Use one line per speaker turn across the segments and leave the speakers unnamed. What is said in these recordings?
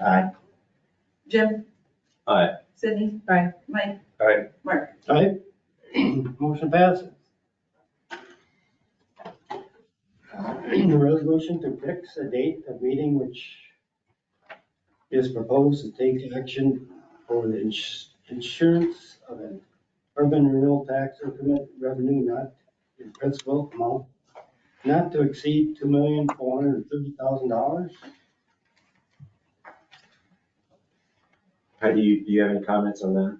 Aye.
Jim?
Aye.
Sydney?
Aye.
Mike?
Aye.
Mark?
Aye. Motion passes. Resolution to fix a date of meeting which is proposed to take action for the ins- insurance of an urban renewal tax increment revenue not in principal amount not to exceed two million four hundred and thirty thousand dollars.
How do you, do you have any comments on that?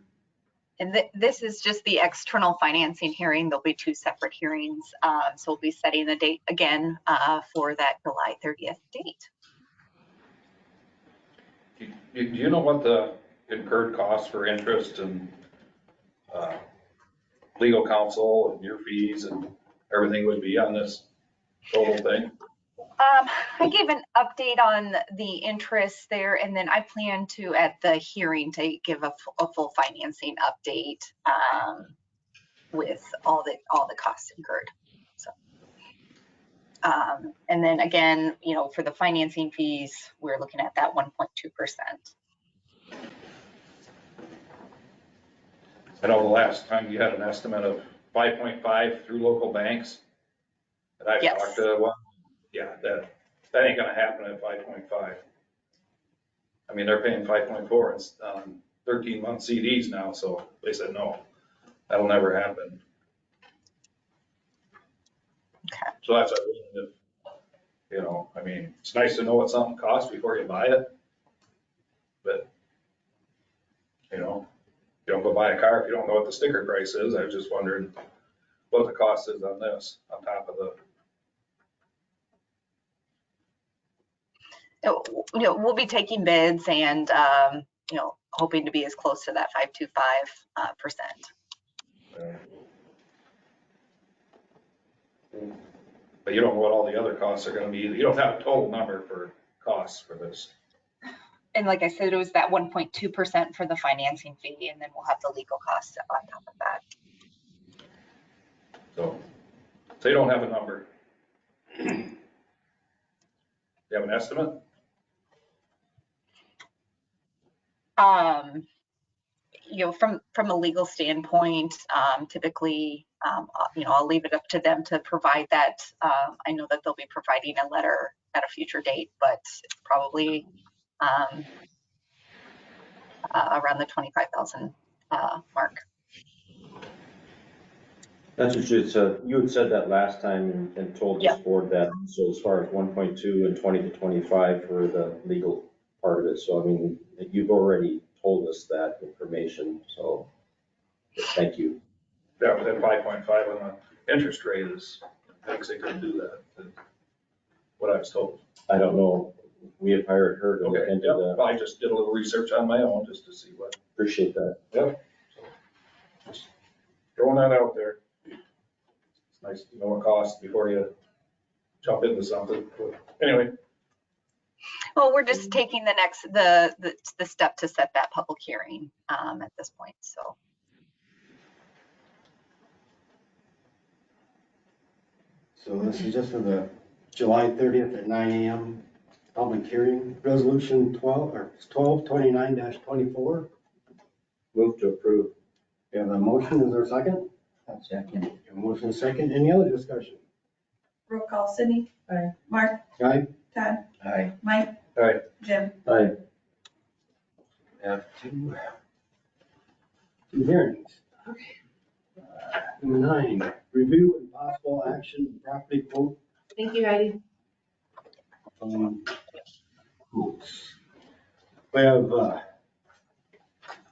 And thi- this is just the external financing hearing. There'll be two separate hearings. Uh, So we'll be setting the date again uh, for that July 30th date.
Do do you know what the incurred costs for interest and uh, legal counsel and your fees and everything would be on this total thing?
Um, I gave an update on the interest there, and then I plan to, at the hearing, to give a fu- a full financing update um, with all the, all the costs incurred. So, um, And then again, you know, for the financing fees, we're looking at that 1.2%.
I know "Oh, the last time you had an estimate of 5.5 through local banks. And I
Yes.
talked to one, yeah, that, that ain't gonna happen at 5.5. I mean, they're paying 5.4 and s- on 13-month CDs now, so they said, no, that'll never happen.
Okay.
So that's, what I mean, if- you know, I mean, it's nice to know what something costs before you buy it. But, you know, you don't go buy a car if you don't know what the sticker price is. I was just wondering what the cost is on this, on top of the,
you know, w- you know, we'll be taking bids and, um, you know, hoping to be as close to that 525%. uh, percent.
but you don't know what all the other costs are gonna be. either. You don't have a total number for costs for this.
And like I said, it was that 1.2% for the financing fee, and then we'll have the legal costs on top of that.
So, so you don't have a number. You have an estimate?
Um, You know, from, from a legal standpoint, um, typically, um, uh, you know, I'll leave it up to them to provide that. Uh, I know that they'll be providing a letter at a future date, but it's probably um, uh, around the 25,000 uh, mark.
That's what you had said, you had said that last time and- and told this
Yeah.
board that, so as far as one point two and twenty to twenty-five for the legal part of it, so I mean, you've already told us that information, so thank you.
Yeah, but then five point five on the interest rate is, thinks they could do that. is What I was told.
I don't know, we have hired her to
Okay,
look into
yeah,
that,
I just did a little research on my own just to see what.
appreciate that.
throwing that out there. It's nice to know what costs before you jump into something. But Anyway,
Well, we're just taking the next, the, the, the step to set that public hearing, um, at this point, so.
So this is just for the July thirtieth at nine AM public hearing, resolution twelve, or twelve twenty-nine twenty-four.
Move to approve.
We have a motion, is there a second?
I'll second.
We have A motion, a second, any other discussion?
Roll call, Sydney?
Aye.
Mark?
Aye.
Todd?
Aye.
Mike?
Aye.
Jim?
Aye.
Have two. Two hearings. Uh, Number nine, review and possible action, property quote
Thank you, Heidi.
Um, oops. We have, uh,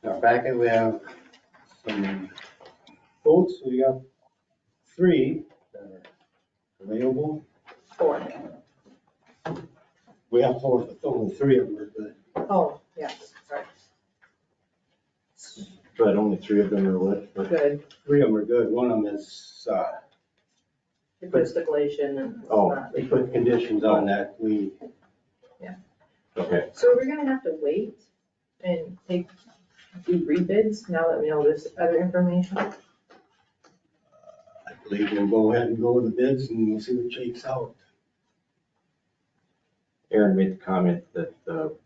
in our packet, we have some quotes, we got three that are available.
Four.
We have four, but only three of them are good.
Oh, yes, sorry,
But only three of them are lit, but
good.
Three of them are good, one of them is, uh,
It puts the collation and. it's
Oh.
not-
they put conditions on that, we,
okay.
So we're gonna have to wait and take, do rebids now that we know this other information?
I believe we'll go ahead and go with the bids and we'll see what shakes out.
Aaron made the comment that uh, the